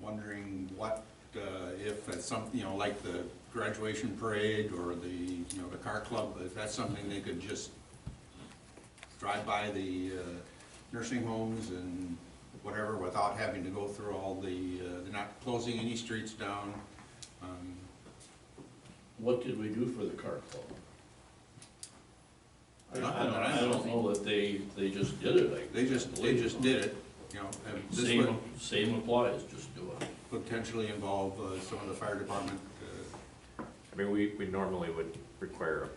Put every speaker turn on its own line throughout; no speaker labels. wondering what, uh, if it's some, you know, like the graduation parade or the, you know, the car club, if that's something they could just drive by the uh, nursing homes and whatever without having to go through all the, uh, they're not closing any streets down. Um,
What did we do for the car club? I
Nothing,
don't,
I
I
don't
don't know that they, they just did it, I.
They just, they just did it, you know, and this would
Same, same applies, just do it.
potentially involve uh, some of the fire department uh,
I mean, we, we normally would require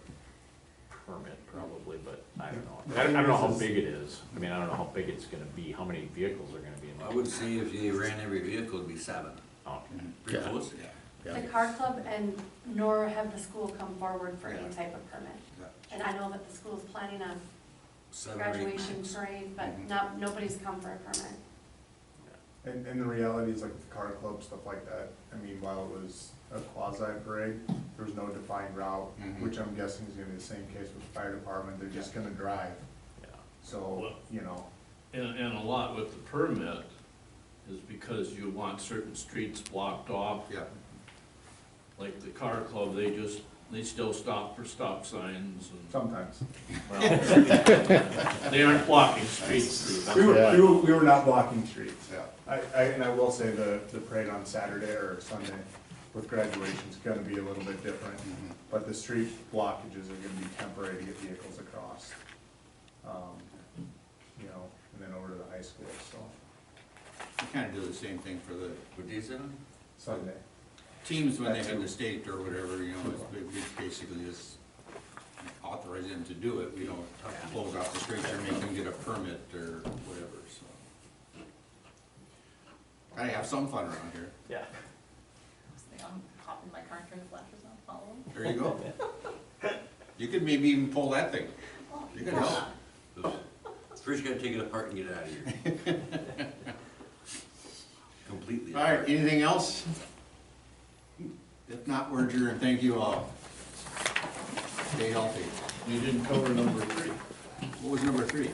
a permit probably, but I don't know. I don't, I don't know how big it is. I mean, I don't know how big it's gonna be, how many vehicles are gonna be in
I
there.
would say if you ran every vehicle, it'd be seven.
Oh,
Pretty close.
Yeah,
The car club and nor have the school come forward for any
Yeah.
type of permit.
yeah.
And I know that the school's planning a
Seven or eight.
graduation parade, but
Mhm.
not, nobody's come for a permit.
And, and the reality is like with the car club, stuff like that, I mean, while it was a quasi parade, there was no defined route,
Mhm.
which I'm guessing is gonna be the same case with the fire department, they're just gonna drive.
yeah.
So,
Well-
you know,
And, and a lot with the permit is because you want certain streets blocked off.
Yeah,
Like the car club, they just, they still stop for stop signs and,
sometimes.
well, they aren't blocking streets.
We
Steve.
were, we were, we were not blocking streets.
Yeah.
I, I, and I will say the, the parade on Saturday or Sunday with graduation's gonna be a little bit different. But the street blockages are gonna be temporary to get vehicles across. Um, You know, and then over to the high school, so
we kind of do the same thing for the
What day is it on?
Sunday.
teams when they had the state or whatever, you know, it's- it it's basically just authorize them to do it, we don't have to close off the streets or make them get a permit or whatever, so. Gotta have some fun around here,
Yeah.
I'm hopping my car, turning the flashes on, follow them.
there you go. You could maybe even pull that thing,
Oh,
you could help.
Oops. First you gotta take it apart and get it out of here. Completely.
All right,
apart.
anything else? If not, we're adjourned, thank you all. Stay healthy.
You didn't cover number three.
What was number three?